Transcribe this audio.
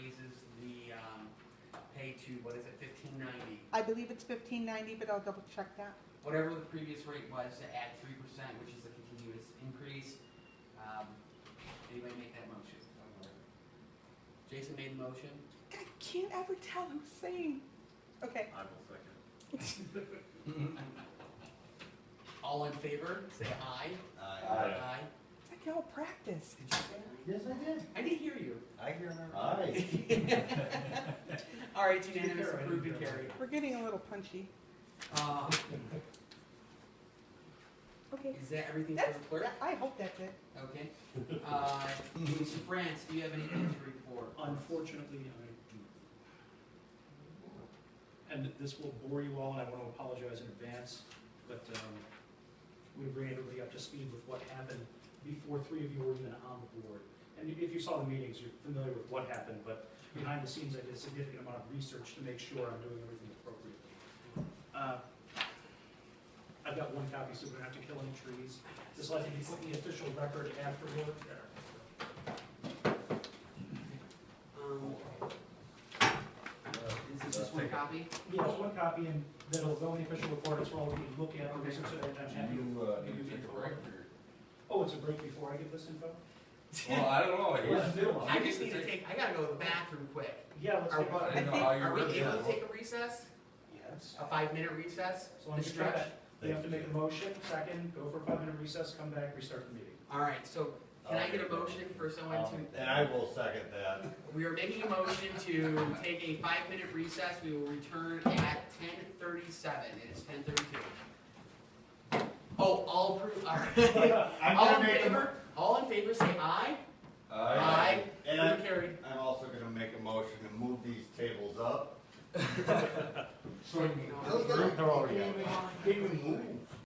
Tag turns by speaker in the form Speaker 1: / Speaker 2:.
Speaker 1: um, to, what is it, fifteen ninety?
Speaker 2: I believe it's fifteen ninety, but I'll double check that.
Speaker 1: Whatever the previous rate was to add three percent, which is a continuous increase. Um, Anybody make that motion? Jason made the motion.
Speaker 2: I can't ever tell who's saying. Okay,
Speaker 3: I will second.
Speaker 1: All in favor, say aye.
Speaker 3: Aye.
Speaker 2: it's like y'all practice.
Speaker 1: Did you say
Speaker 4: Yes, I did.
Speaker 1: aye? I did hear you.
Speaker 4: I hear her.
Speaker 1: All right, unanimous, approved and carried.
Speaker 2: We're getting a little punchy.
Speaker 1: Um,
Speaker 2: Okay.
Speaker 1: Is that everything for
Speaker 2: That's,
Speaker 1: the clerk?
Speaker 2: I hope that's it.
Speaker 1: Okay. Uh, Ms. France, do you have anything to report?
Speaker 5: Unfortunately, I do. And this will bore you all, and I want to apologize in advance, but um, we bring everybody up to speed with what happened before three of you were even on the board. And if you saw the meetings, you're familiar with what happened, but behind the scenes, I did a significant amount of research to make sure I'm doing everything appropriately. Uh, I've got one copy, so we don't have to kill any trees. This will have to be put in the official record afterward.
Speaker 1: Um, Is this
Speaker 3: Let's
Speaker 1: just one
Speaker 3: take it.
Speaker 1: copy?
Speaker 5: Yeah, there's one copy, and that'll go in the official report, it's all we can look at, the research that I've done. Have you-
Speaker 3: You, uh,
Speaker 5: you
Speaker 3: need to
Speaker 5: get
Speaker 3: take a
Speaker 5: the
Speaker 3: break
Speaker 5: vote?
Speaker 3: or?
Speaker 5: Oh, it's a break before I give this info?
Speaker 3: Well, I don't know, I
Speaker 5: Where's
Speaker 3: guess.
Speaker 5: Bill?
Speaker 1: I just need to take, I gotta go to the bathroom quick.
Speaker 5: Yeah, let's
Speaker 1: Are,
Speaker 5: take
Speaker 1: I
Speaker 5: it.
Speaker 1: think,
Speaker 3: know how you
Speaker 1: are we
Speaker 3: wrote
Speaker 1: able to
Speaker 3: that.
Speaker 1: take a recess?
Speaker 5: Yes.
Speaker 1: A five-minute recess?
Speaker 5: As long as
Speaker 1: Mr.
Speaker 5: you got
Speaker 1: Judge?
Speaker 5: it. You have to make a motion, second, go for a five-minute recess, come back, restart the meeting.
Speaker 1: All right, so can I get a motion for someone to,
Speaker 4: Um, And I will second that.
Speaker 1: we are making a motion to take a five-minute recess. We will return at ten thirty-seven. It is ten thirty-two. Oh, all approve, all right.
Speaker 4: I'm
Speaker 1: All
Speaker 4: gonna
Speaker 1: in
Speaker 4: make a,
Speaker 1: favor,
Speaker 4: mo-
Speaker 1: all in favor, say aye.
Speaker 3: Aye.
Speaker 4: and
Speaker 1: Motion
Speaker 4: I'm,
Speaker 1: carried.
Speaker 4: I'm also gonna make a motion to move these tables up.
Speaker 1: So we can go on.
Speaker 4: Those guys can't even, can't even move.